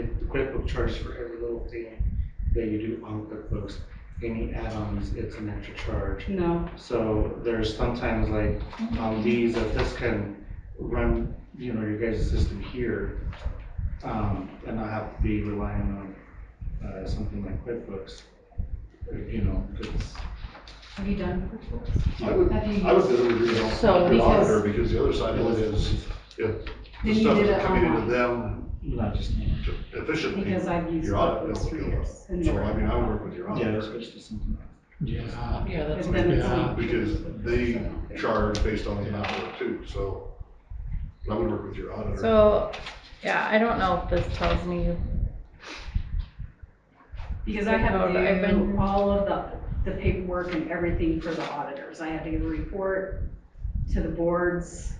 The QuickBooks charge for every little thing that you do on QuickBooks. Any add-ons, it's an extra charge. No, So there's sometimes like Um, on these, if this can run, you know, your guys' system here, um, and not have to be relying on, uh, something like QuickBooks, you know, it's. have you done QuickBooks? I would, Have you I would really agree on So, the auditor, because- because the other side of it is, if the Then you stuff did is it coming online. into them Not just. efficiently, Because I've used your audit QuickBooks bill for will go up. years. and So, never- I mean, I would work with your Yeah, auditor, switch to something else. Yeah, Yeah, that's. But then it's Yeah, not- because they So- charge based on the amount of work too, so I would work with your auditor. So, yeah, I don't know if this tells me, Because I have But I've to do been- all of the, the paperwork and everything for the auditors. I have to give a report to the boards,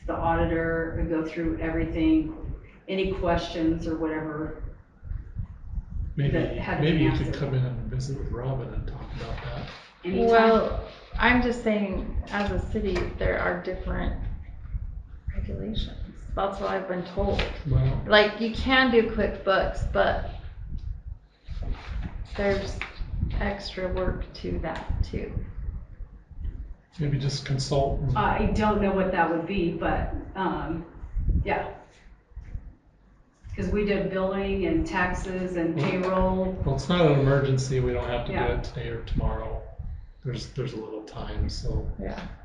to the auditor, and go through everything, any questions or whatever. That maybe, had maybe you been could answered. come in and visit with Robin and talk about that. anytime. well, I'm just saying, as a city, there are different regulations. That's what I've been told. Well, Like, you can do QuickBooks, but there's extra work to that too. maybe just consult and I don't know what that would be, but, um, yeah. Because we did billing and taxes and payroll. Well, it's not an emergency, we don't have to do Yeah. it today or tomorrow. There's, there's a little time, so.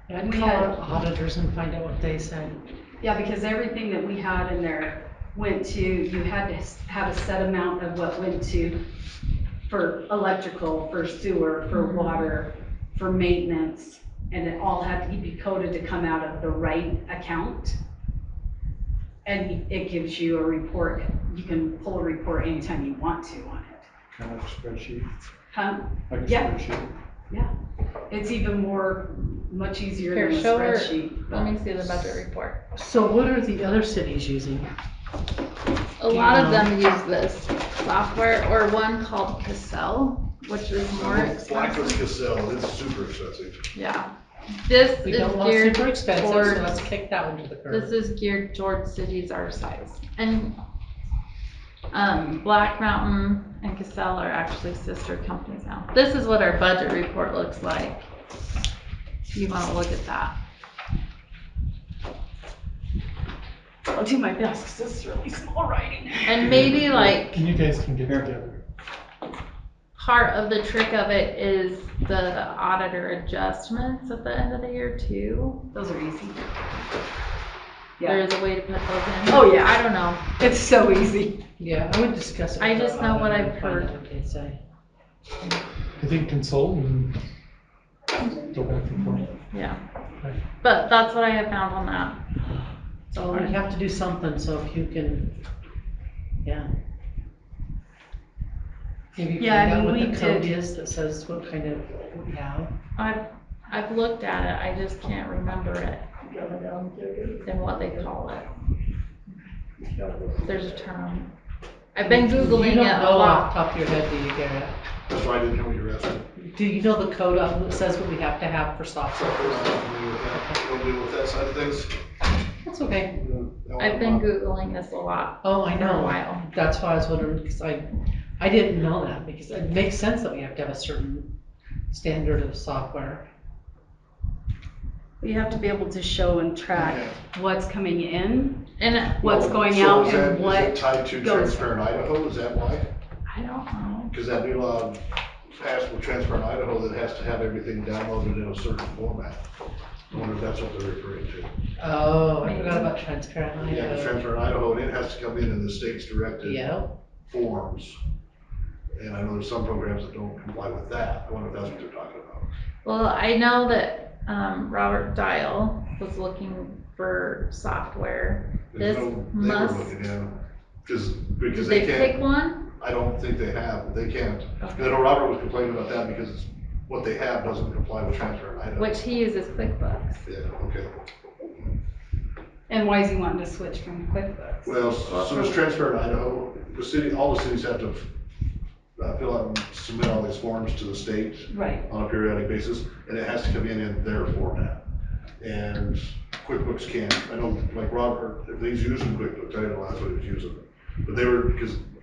I'd We call had- our auditors and find out what they said. Yeah, because everything that we had in there went to, you had to s- have a set amount of what went to for electrical, for sewer, for water, for maintenance, and it all had to be coded to come out of the right account. And it gives you a report, you can pull a report anytime you want to on it. Kind of like a spreadsheet. Um, like a Yeah. spreadsheet. It's even more, much easier Here, than a show her. spreadsheet. Let me see the budget report. So what are the other cities using? A lot of them use this software or one called Cassell, which is more Black with expensive. Cassell, it's super expensive. Yeah. This We is don't want geared super expensive, towards- so let's kick that one to the This curb. is geared towards cities our size. And um, Black Mountain and Cassell are actually sister companies now. This is what our budget report looks like. If You want to look at that. I'll do my best, because this is really small writing. And maybe like And you guys can get together. part of the trick of it is the auditor adjustments at the end of the year too. Those are easy. There Yeah, is a way to put those in. Oh, yeah. I don't know. it's so easy. Yeah, I would discuss it. I with our just know what auditor I've and find heard. out what they say. I think consult and go back and forth. Yeah. Right. But that's what I have found on that. So we have to do something, so if you can, yeah. Maybe Yeah, I find out mean, what we the code did- is that says what kind of, what we have. I've, I've looked at it, I just can't remember it and what they call it. There's a term. I've been Googling You it don't a know off lot. the top of your head, do you, Garrett? That's why I didn't know what you were asking. Do you know the code of, that says what we have to have for software? Don't deal with that side of things. That's okay. I've been Googling this a lot Oh, I for a know. while. That's why I was wondering, because I, I didn't know that, because it makes sense that we have to have a certain standard of software. You have to be able to show and track what's coming in, And it- what's going out and Is it what, tied to goes- Transparent Idaho, is that why? I don't know. Because that new um, law passed with Transparent Idaho that has to have everything downloaded in a certain format. I wonder if that's what they're referring to. Oh, I forgot about transparent Yeah, because Idaho. Transparent Idaho, and it has to come in in the state's directed Yeah, forms. And I know there's some programs that don't comply with that, I wonder if that's what they're talking about. Well, I know that, um, Robert Dial was looking for software. There's This no- they were must- looking, yeah. Because, Did because they they can't, pick one? I don't think they have, they can't. And I Okay. know Robert was complaining about that because what they have doesn't comply with Transparent Idaho. Which he uses QuickBooks. Yeah, okay. and why is he wanting to switch from QuickBooks? Well, so it's transferred in Idaho, the city, all the cities have to uh, fill out and submit all these forms to the state Right, on a periodic basis, and it has to come in in their format. And QuickBooks can't, I know, like Robert, if he's using QuickBooks, I didn't know that's what he was using. But they were, because